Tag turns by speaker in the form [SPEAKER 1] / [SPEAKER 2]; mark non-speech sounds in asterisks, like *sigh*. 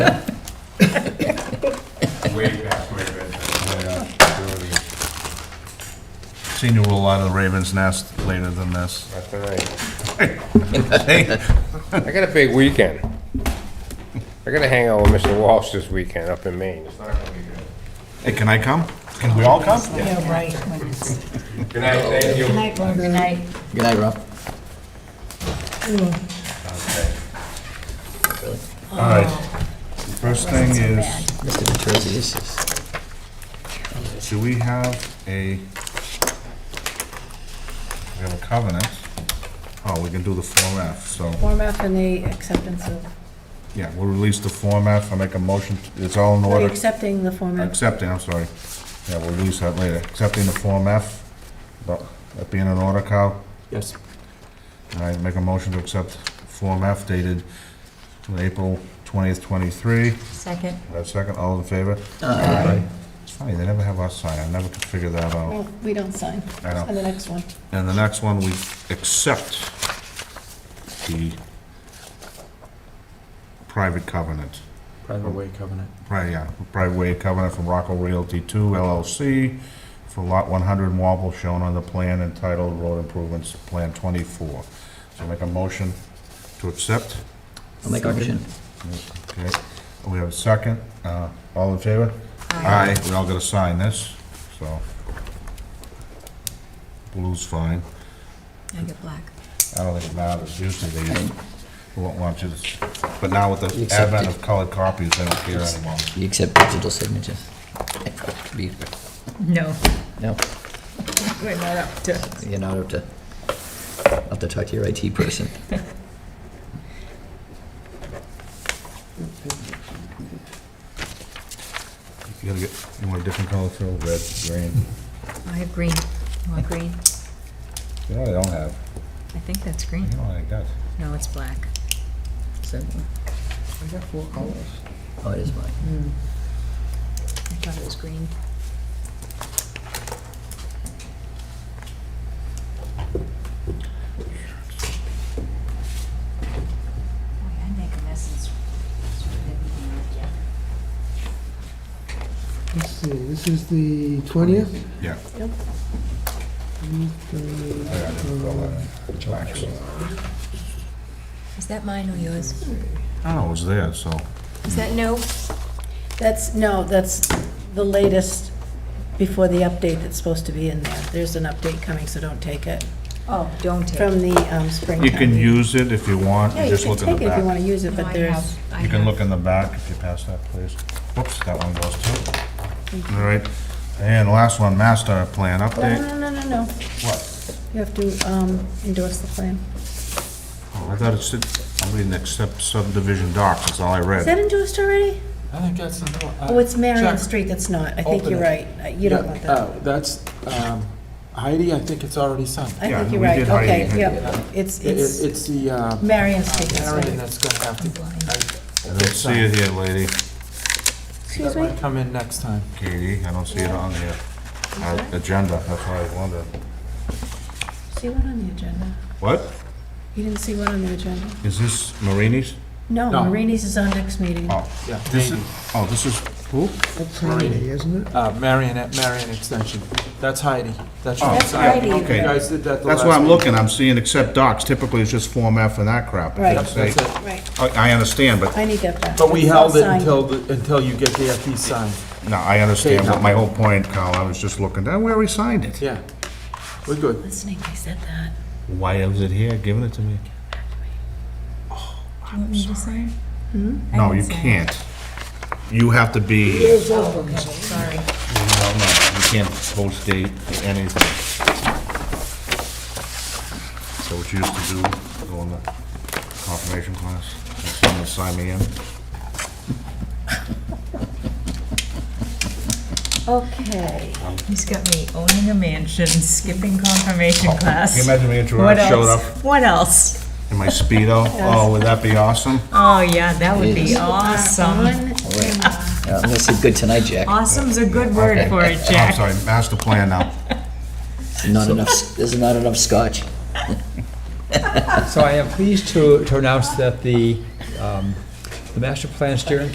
[SPEAKER 1] Way back, way back.
[SPEAKER 2] Seen you roll out of the Raven's Nest later than this.
[SPEAKER 1] That's all right.
[SPEAKER 2] Hey,
[SPEAKER 1] I got a big weekend. I gotta hang out with Mr. Walsh this weekend up in Maine. It's not gonna be good.
[SPEAKER 2] hey, can I come? Can we all come?
[SPEAKER 3] Yeah, right. Wednesday.
[SPEAKER 1] Good night, thank you.
[SPEAKER 3] Good night, Rob. Good night.
[SPEAKER 4] Good night, Rob.
[SPEAKER 2] All
[SPEAKER 3] Uh,
[SPEAKER 2] right. First thing is,
[SPEAKER 4] Mr. Petrizzi, this is,
[SPEAKER 2] do we have a, we have a covenant? Oh, we can do the Form F, so,
[SPEAKER 3] Form F and the acceptance of,
[SPEAKER 2] yeah, we'll release the Form F, I make a motion, it's all in
[SPEAKER 3] are you
[SPEAKER 2] order.
[SPEAKER 3] accepting the Form F?
[SPEAKER 2] Accepting, I'm sorry. Yeah, we'll release that later. Accepting the Form F, but that being in order, Kyle?
[SPEAKER 4] yes,
[SPEAKER 2] I make a motion to accept Form F dated April 20th, 23.
[SPEAKER 5] Second.
[SPEAKER 2] Have a second, all in favor? Aye. It's funny, they never have us sign, I never could figure that out.
[SPEAKER 3] No, Oh, we don't sign.
[SPEAKER 2] I know.
[SPEAKER 3] Sign the next one.
[SPEAKER 2] And the next one, we accept the private covenant.
[SPEAKER 4] private way covenant.
[SPEAKER 2] Right, yeah, private way covenant from Rocco Realty Two LLC for lot one hundred in Wapple shown on the plan entitled Road Improvements Plan Twenty-four. So make a motion to accept.
[SPEAKER 4] I'll make a motion.
[SPEAKER 2] Okay, we have a second. Uh, all in favor? Aye. We all gotta sign this, so. Blue's fine.
[SPEAKER 5] I get black.
[SPEAKER 2] I don't think it matters. Usually they just won't want you to, but now with the advent of colored copies, they don't care anymore.
[SPEAKER 4] You accept digital signatures? Computer.
[SPEAKER 5] No,
[SPEAKER 4] No,
[SPEAKER 5] we're not up to.
[SPEAKER 4] you're not up to, I'll have to talk to your IT person.
[SPEAKER 2] You gotta get, you want a different color fill, red, green.
[SPEAKER 5] I have green. You want green?
[SPEAKER 2] You know, I don't have,
[SPEAKER 5] I think that's green.
[SPEAKER 2] you know, I got.
[SPEAKER 5] No, it's black. So, I
[SPEAKER 2] I got four colors. Mm.
[SPEAKER 4] Oh, it is mine.
[SPEAKER 5] thought it was green. Boy, I make a mess. It's- it's ridiculous.
[SPEAKER 6] Let's see, this is the twentieth? Uh,
[SPEAKER 2] Yeah.
[SPEAKER 3] Yep.
[SPEAKER 2] I got it, fill that in. Blacks.
[SPEAKER 5] Is that mine or yours?
[SPEAKER 2] I don't know, it was there, so.
[SPEAKER 5] Is that no?
[SPEAKER 3] That's, no, that's the latest before the update that's supposed to be in there. There's an update coming, so don't take it.
[SPEAKER 5] Oh, don't take it.
[SPEAKER 3] From the um, spring.
[SPEAKER 2] You
[SPEAKER 3] town
[SPEAKER 2] can
[SPEAKER 3] meeting.
[SPEAKER 2] use it if you want,
[SPEAKER 3] Yeah,
[SPEAKER 2] you
[SPEAKER 3] you
[SPEAKER 2] just
[SPEAKER 3] can
[SPEAKER 2] look in
[SPEAKER 3] take
[SPEAKER 2] the
[SPEAKER 3] it if you want
[SPEAKER 2] back.
[SPEAKER 3] to use it,
[SPEAKER 5] No,
[SPEAKER 3] but
[SPEAKER 5] I
[SPEAKER 3] there's,
[SPEAKER 5] have- I
[SPEAKER 2] You can
[SPEAKER 5] have-
[SPEAKER 2] look in the back if you pass that, please. Whoops, that one goes too. All right, and last one, master plan
[SPEAKER 3] no,
[SPEAKER 2] update.
[SPEAKER 3] no, no, no, no.
[SPEAKER 2] What?
[SPEAKER 3] You have to um, endorse the plan.
[SPEAKER 2] Oh, I thought it said, I'm reading except subdivision docs, that's all I
[SPEAKER 3] Is that
[SPEAKER 2] read.
[SPEAKER 3] endorsed already?
[SPEAKER 7] I think that's the one.
[SPEAKER 3] Oh, it's Marion
[SPEAKER 7] Check.
[SPEAKER 3] Street that's not. I think
[SPEAKER 7] Open
[SPEAKER 3] you're
[SPEAKER 7] it.
[SPEAKER 3] right. Uh, You don't want that.
[SPEAKER 7] oh, That's, um, Heidi, I think it's already signed.
[SPEAKER 3] I
[SPEAKER 2] Yeah,
[SPEAKER 3] think you're
[SPEAKER 2] we
[SPEAKER 3] right.
[SPEAKER 2] did hide
[SPEAKER 3] Okay,
[SPEAKER 2] it.
[SPEAKER 3] yeah. It's,
[SPEAKER 7] It- it-
[SPEAKER 3] it's
[SPEAKER 7] It's the, uh,
[SPEAKER 3] Marion Street that's
[SPEAKER 7] Karen
[SPEAKER 3] right.
[SPEAKER 7] that's gonna have to,
[SPEAKER 2] I don't see it here, lady.
[SPEAKER 3] Excuse
[SPEAKER 7] that
[SPEAKER 3] me?
[SPEAKER 7] might come in next time.
[SPEAKER 2] Katie, I don't see it on here. Our Agenda, that's why I wondered.
[SPEAKER 3] See one on the agenda.
[SPEAKER 2] What?
[SPEAKER 3] You didn't see one on the agenda?
[SPEAKER 2] Is this Marini's?
[SPEAKER 3] No,
[SPEAKER 7] No.
[SPEAKER 3] Marini's is on next meeting.
[SPEAKER 2] Oh,
[SPEAKER 7] Yeah,
[SPEAKER 2] this is,
[SPEAKER 7] maybe.
[SPEAKER 2] oh, this is, who?
[SPEAKER 6] That's Saturday, isn't it?
[SPEAKER 7] Uh, Marion, at Marion Extension. That's Heidi. That's
[SPEAKER 2] Oh,
[SPEAKER 7] your side.
[SPEAKER 5] Heidi.
[SPEAKER 7] You
[SPEAKER 2] okay.
[SPEAKER 7] guys did that the
[SPEAKER 2] That's
[SPEAKER 7] last.
[SPEAKER 2] why I'm
[SPEAKER 7] week.
[SPEAKER 2] looking, I'm seeing except docs, typically it's just Form F and that crap.
[SPEAKER 3] Right.
[SPEAKER 7] Yep, that's it.
[SPEAKER 3] Right.
[SPEAKER 2] I, I understand, but,
[SPEAKER 3] I need that back.
[SPEAKER 7] But we
[SPEAKER 3] It's all
[SPEAKER 7] held it
[SPEAKER 3] signed.
[SPEAKER 7] until, the- until you get the FE signed.
[SPEAKER 2] no, I understand, but my whole point, Kyle, I was just looking, I already signed it.
[SPEAKER 7] Yeah. We're good.
[SPEAKER 3] Listening, I said that.
[SPEAKER 2] Why is it here, giving it to me?
[SPEAKER 5] You want me to sign?
[SPEAKER 3] Hmm?
[SPEAKER 5] I
[SPEAKER 2] No,
[SPEAKER 5] can
[SPEAKER 2] you
[SPEAKER 5] sign.
[SPEAKER 2] can't. You have to be, no,
[SPEAKER 5] Oh, okay, sorry.
[SPEAKER 2] no, you can't post date anything. So what you used to do, go in the confirmation class, and someone sign me in.
[SPEAKER 3] Okay.
[SPEAKER 5] He's got me owning a mansion, skipping confirmation class.
[SPEAKER 2] Oh, Can you imagine me if
[SPEAKER 5] What
[SPEAKER 2] I showed
[SPEAKER 5] else?
[SPEAKER 2] up
[SPEAKER 5] What else?
[SPEAKER 2] in my Speedo? Oh, would that be awesome?
[SPEAKER 5] Oh, yeah, that would be
[SPEAKER 4] Yes.
[SPEAKER 5] awesome.
[SPEAKER 4] Uh, I'm gonna say good tonight,
[SPEAKER 2] *laughs*
[SPEAKER 4] Jack.
[SPEAKER 5] Awesome's a good word
[SPEAKER 2] Okay. Oh,
[SPEAKER 5] for it,
[SPEAKER 2] I'm
[SPEAKER 5] Jack.
[SPEAKER 2] sorry, master plan now.
[SPEAKER 4] Not enough, s- there's not enough scotch.
[SPEAKER 8] So I am pleased to to announce that the um, the Master Plan Steering